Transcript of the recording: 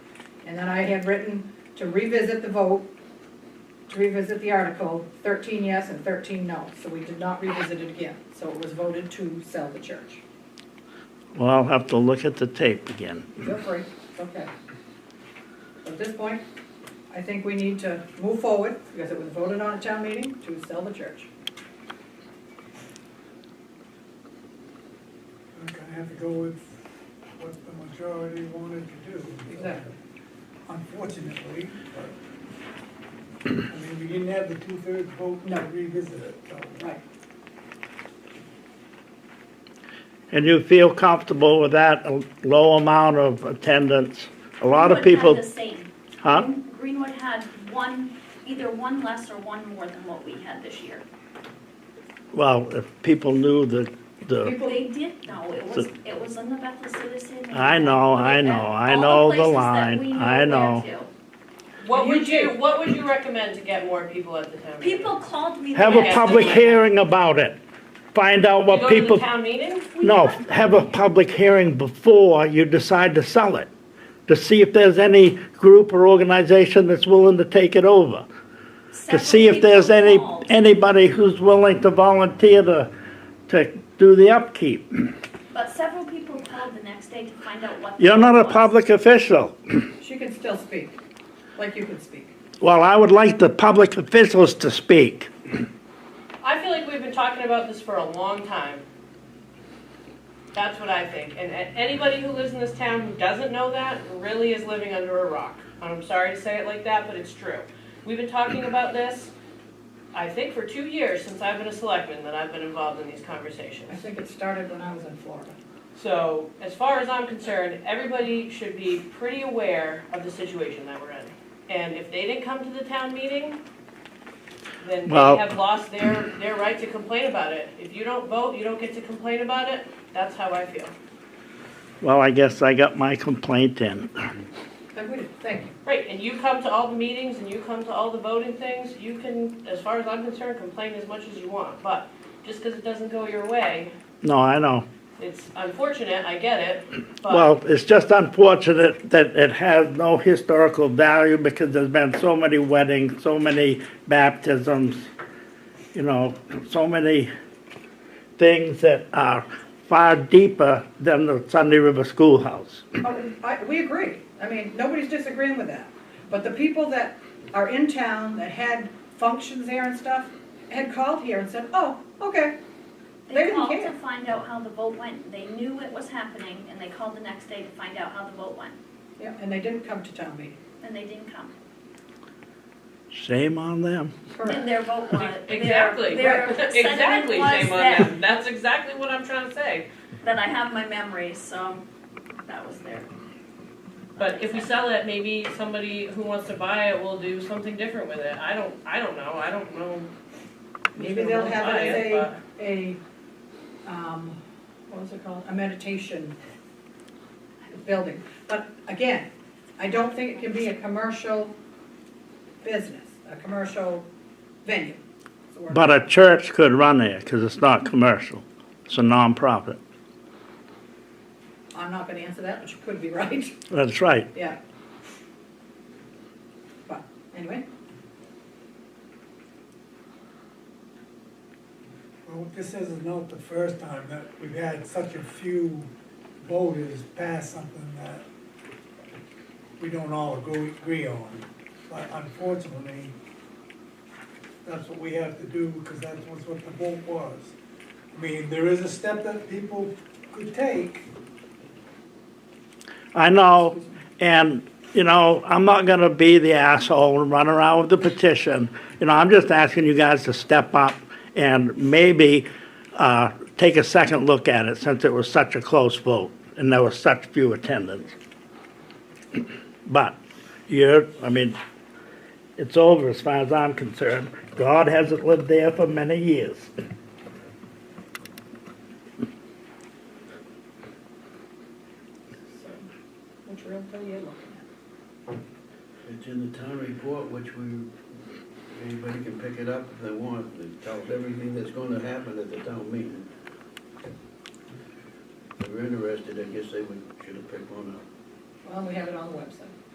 And then I had written to revisit the vote, to revisit the article, thirteen yes and thirteen no. So we did not revisit it again. So it was voted to sell the church. Well, I'll have to look at the tape again. Feel free, it's okay. At this point, I think we need to move forward, because it was voted on at town meeting, to sell the church. I'm gonna have to go with what the majority wanted to do. Exactly. Unfortunately, but, I mean, we didn't have the two-thirds vote to No. revisit it, so. Right. And you feel comfortable with that a low amount of attendance? A lot of Greenwood people, had the same. huh? Greenwood had one, either one less or one more than what we had this year. Well, if people knew the, the, People- They did know, it was, it was in the Bethel Citizen. and- I know, I know, I know the All places that line, we I know. know where to. What would You you, what would you recommend to get more people at the town meeting? People called me. have the a next public day. hearing about it. Find out To what people, Go to the town meeting? We no, have- have a public hearing before you decide to sell it. To see if there's any group or organization that's willing to take it over. to several see if people there's any, called. anybody who's willing to volunteer to, to do the upkeep. But several people called the next day to find out what. the You're not deal a was. public official. She can still speak, like you can speak. Well, I would like the public officials to speak. I feel like we've been talking about this for a long time. That's what I think, and a- anybody who lives in this town who doesn't know that really is living under a rock. And I'm sorry to say it like that, but it's true. We've been talking about this, I think for two years since I've been a selectman, that I've been involved in these I conversations. think it started when I was in Florida. So, as far as I'm concerned, everybody should be pretty aware of the situation that we're in. And if they didn't come to the town meeting, then they Well- have lost their, their right to complain about it. If you don't vote, you don't get to complain about it, that's how I feel. Well, I guess I got my complaint in. But we did, thank you. Right, and you come to all the meetings and you come to all the voting things, you can, as far as I'm concerned, complain as much as you want. But just because it doesn't go your way, No, I know. it's unfortunate, I get it, but. Well, it's just unfortunate that it has no historical value because there's been so many weddings, so many baptisms, you know, so many things that are far deeper than the Sunday River Schoolhouse. Oh, I, we agree. I mean, nobody's disagreeing with that. But the people that are in town that had functions there and stuff had called here and said, oh, okay. They They didn't called care. to find out how the vote went. They knew it was happening and they called the next day to find out how the vote went. Yeah, and they didn't come to town meeting. And they didn't come. Shame on them. And their vote was. their- Exactly. Their sentiment exactly. was Shame on that- them. That's exactly what I'm trying to say. That I have my memories, so that was their. But if we sell it, maybe somebody who wants to buy it will do something different with it. I don't. I don't know. I don't know. who's Maybe gonna they'll wanna have buy it as but- a, a, um, what was it called, a meditation building. But again, I don't think it can be a commercial business, a commercial venue. That's the word. But uh, a church could run there because it's not commercial. It's a nonprofit. I'm not gonna answer that, but you could be right, That's right. yeah. But, anyway, Well, this is not the first time that we've had such a few voters pass something that we don't all agree, agree on. But unfortunately, that's what we have to do, because that's what's what the vote was. I mean, there is a step that people could take, I know, and, you know, I'm not gonna be the asshole and run around with the petition. You know, I'm just asking you guys to step up and maybe, uh, take a second look at it since it was such a close vote and there was such few attendants. But you're, I mean, it's over as far as I'm concerned. God hasn't lived there for many years. so, which real bill you looking It's in the town report, which we, anybody can pick it up if they want. It tells everything that's gonna happen at the town meeting. If they're interested, I guess they would, should have picked one up. at? Well, we have it on the website.